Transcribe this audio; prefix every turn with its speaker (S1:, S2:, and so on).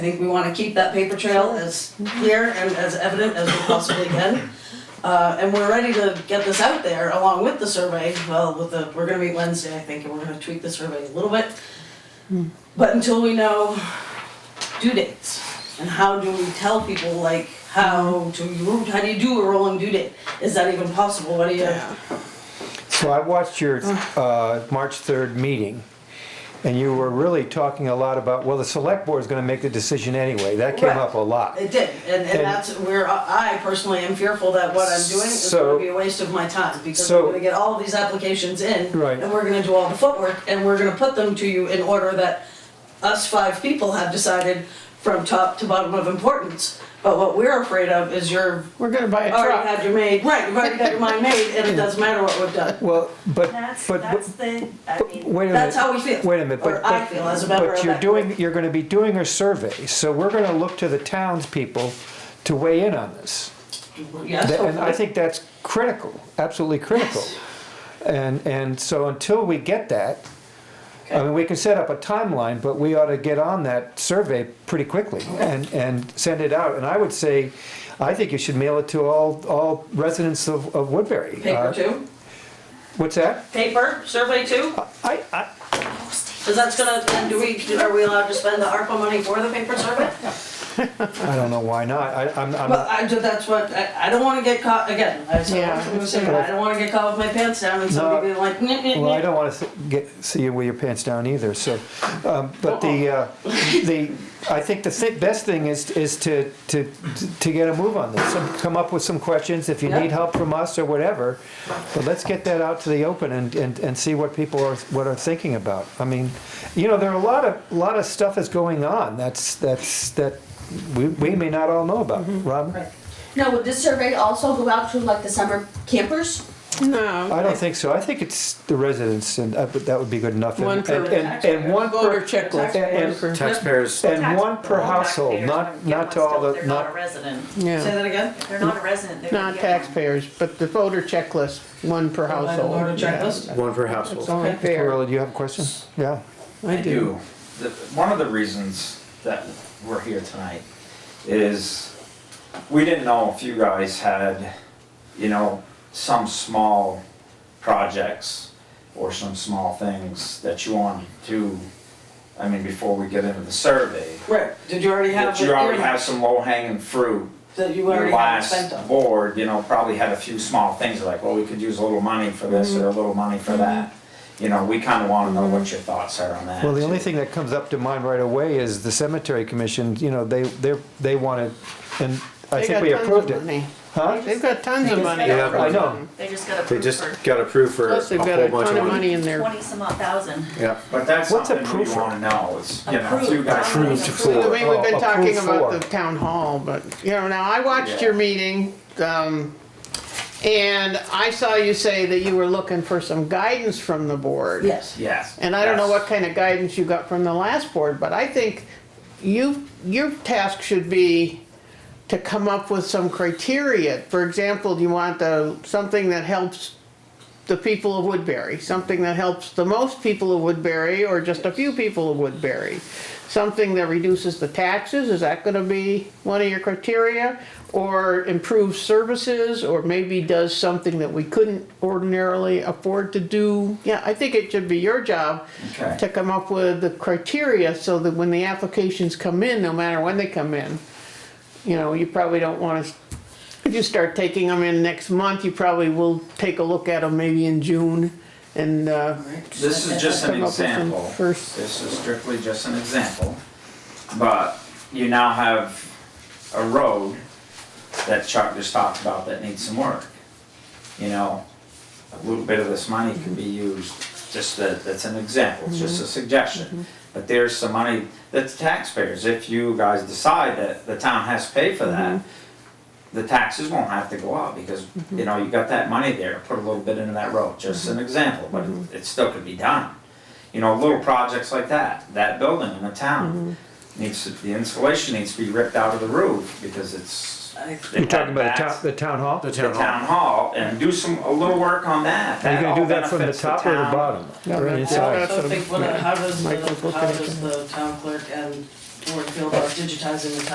S1: I think we wanna keep that paper trail as clear and as evident as we possibly can. Uh, and we're ready to get this out there along with the survey, well, with the, we're gonna meet Wednesday, I think, and we're gonna tweak the survey a little bit. But until we know due dates, and how do we tell people, like, how to, how do you do a rolling due date? Is that even possible, what do you?
S2: So I watched your uh, March 3rd meeting, and you were really talking a lot about, well, the select board is going to make the decision anyway. That came
S1: Right.
S2: up a lot.
S1: It did, and, and
S2: And-
S1: that's where I I personally am fearful that what I'm doing is gonna
S2: So-
S1: be a waste of my time, because
S2: So-
S1: we're gonna get all of these applications in.
S2: Right.
S1: And we're gonna do all the footwork, and we're gonna put them to you in order that us five people have decided from top to bottom of importance. But what we're afraid of is you're
S3: We're gonna buy a
S1: already
S3: truck.
S1: had your made, right, you've already got your mind made, and it doesn't matter what we've done.
S2: Well, but,
S4: That's,
S2: but,
S4: that's the, I
S2: but-
S4: mean,
S2: wait a
S1: That's
S2: minute,
S1: how we feel.
S2: wait a minute, but.
S1: Or I
S2: but-
S1: feel as a member of
S2: But you're
S1: that
S2: doing, you're going to be doing a survey, so we're going to look to the townspeople to weigh in on this.
S1: group. Yes,
S2: That- And I
S1: hopefully.
S2: think that's critical, absolutely critical. And, and so until we get that, I
S1: Okay.
S2: mean, we can set up a timeline, but we ought to get on that survey pretty quickly and, and send it out. And I would say, I think you should mail it to all, all residents of, of Woodbury.
S1: Paper
S2: Uh,
S1: two,
S2: What's that?
S1: paper, survey two?
S2: I, I,
S1: Cause that's gonna, and do we, are we allowed to spend the ARPA money for the paper survey?
S2: I don't know why not. I, I'm,
S1: Well,
S2: I'm, not-
S1: I, that's what, I, I don't wanna get caught, again, I said,
S3: Yeah.
S1: I'm saying, I don't wanna get caught with my pants down and somebody
S2: No.
S1: be like, nyeh, nyeh,
S2: well, I
S1: nyeh.
S2: don't want to get, see you with your pants down either, so. um, But the, uh, the, I think the thi- best thing is, is to, to, to get a move on this. Some- Come up with some questions if you
S1: Yeah.
S2: need help from us or whatever. But let's get that out to the open and, and, and see what people are, what are thinking about. I mean, you know, there are a lot of, lot of stuff is going on that's, that's, that we, we may not all know about, Rob?
S1: Right.
S5: Now, would this survey also go out to like the summer campers?
S3: No.
S2: I don't think so. I think it's the residents and, uh, but that would be good enough. And-
S3: One per-
S2: and- And, and one per.
S3: Voter checklist.
S2: And- and-
S6: Taxpayers,
S2: And one per
S4: Taxpayers.
S2: household, not,
S4: Taxpayers don't
S2: not
S4: get
S2: to all
S4: one
S2: the,
S4: still. They're not a
S2: not,
S4: resident,
S1: Say
S3: Yeah.
S1: that again?
S4: they're not a resident, they're.
S3: Not taxpayers, but the voter checklist, one per
S1: Online
S3: household.
S1: voter
S3: Yeah.
S1: checklist?
S6: one per
S3: It's
S6: household.
S3: only fair.
S2: Carol, do you have a question? Yeah.
S3: I
S7: I do. The, one of the reasons that we're here tonight is we didn't know if you guys had, you know, some small projects or some small things that you wanted to, I mean, before we get into the survey,
S1: Right, did you already have
S7: that
S1: the
S7: you already
S1: earmark
S7: have some low hanging fruit
S1: that you
S7: your
S1: already have spent
S7: last
S1: on?
S7: board, you know, probably had a few small things like, well, we could use a little money for this
S1: Mm-hmm.
S7: or a little money for that. You know, we kind of want to know what your thoughts are on that.
S2: Well, the only
S7: too.
S2: thing that comes up to mind right away is the cemetery commission, you know, they, they're, they wanted, and I
S3: They
S2: think
S3: got
S2: we
S3: tons of
S2: approved it.
S3: money.
S2: Huh?
S3: They've got tons of money.
S6: Yeah,
S2: I know.
S4: They just got
S6: They
S4: approved
S6: just
S4: for
S6: got approved for a
S3: Plus, they've got a
S6: whole bunch
S3: ton
S6: of
S3: of
S6: money.
S3: money in there.
S4: twenty some odd thousand.
S6: Yeah,
S7: But that's
S2: What's
S7: something we
S2: approved?
S7: want to know is, you know, if you
S4: Approved.
S7: guys.
S4: Approved
S3: I mean,
S6: for-
S3: we've been
S2: Oh,
S3: talking
S2: approved
S3: about
S2: for.
S3: the town hall, but, you know, now I watched
S7: Yeah.
S3: your meeting, um, and I saw you say that you were looking for some guidance from the board.
S1: Yes.
S7: Yes.
S3: And I don't know
S7: yes.
S3: what kind of guidance you got from the last board, but I think you, your task should be to come up with some criteria. For example, do you want the, something that helps the people of Woodbury? Something that helps the most people of Woodbury or just a few people of Woodbury? Something that reduces the taxes, is that gonna be one of your criteria? Or improves services, or maybe does something that we couldn't ordinarily afford to do? Yeah, I think it should be your job
S7: Okay.
S3: to come up with the criteria so that when the applications come in, no matter when they come in, you know, you probably don't wanna, if you start taking them in next month, you probably will take a look at them maybe in June and, uh,
S7: This is just an
S3: Come up with some
S7: example.
S3: first-
S7: This is strictly just an example. But you now have a road that Chuck just talked about that needs some work. You know, a little bit of this money can be used, just that, that's an example, it's just a suggestion. But there's some money, that's taxpayers, if you guys decide that the town has to pay for that, the taxes won't have to go up because, you know, you got that money there, put a little bit into that road, just an example, but it- it still could be done. You know, little projects like that, that building in the town needs, to- the insulation needs to be ripped out of the roof because it's.
S1: I-
S2: You're talking about the town, the town hall?
S6: the
S7: The
S6: town hall.
S7: town hall and do some, a little work on that.
S2: Are you gonna
S7: all
S2: do that from the
S7: benefits
S2: top or the
S7: town.
S2: bottom? Or
S3: Yeah.
S2: inside?
S1: So think, what, how does, the-
S3: Michael's looking
S1: how
S3: at
S1: does
S3: it.
S1: the town clerk and Board feel about digitizing the town